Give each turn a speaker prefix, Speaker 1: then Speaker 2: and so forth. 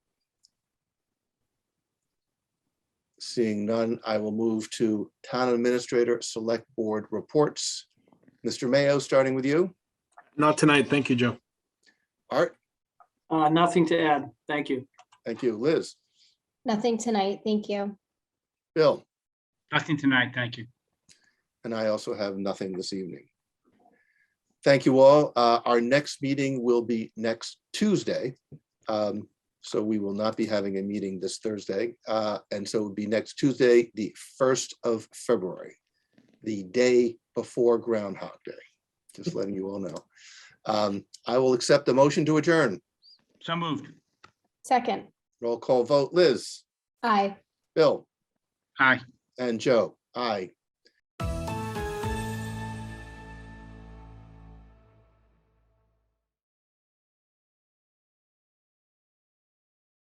Speaker 1: Seeing none, I will move to Town Administrator Select Board Reports. Mr. Mayo, starting with you.
Speaker 2: Not tonight. Thank you, Joe.
Speaker 1: Art,
Speaker 3: Uh, nothing to add. Thank you.
Speaker 1: thank you. Liz,
Speaker 4: Nothing tonight, thank you.
Speaker 1: Bill,
Speaker 5: Nothing tonight, thank you.
Speaker 1: and I also have nothing this evening. Thank you all. Uh, Our next meeting will be next Tuesday. Um, So we will not be having a meeting this Thursday. Uh, And so it would be next Tuesday, the 1st of February, the day before Groundhog Day. Just letting you all know. Um, I will accept the motion to adjourn.
Speaker 5: So moved.
Speaker 4: Second,
Speaker 1: Roll call vote, Liz,
Speaker 4: aye.
Speaker 1: Bill,
Speaker 5: Aye.
Speaker 1: and Joe. Aye.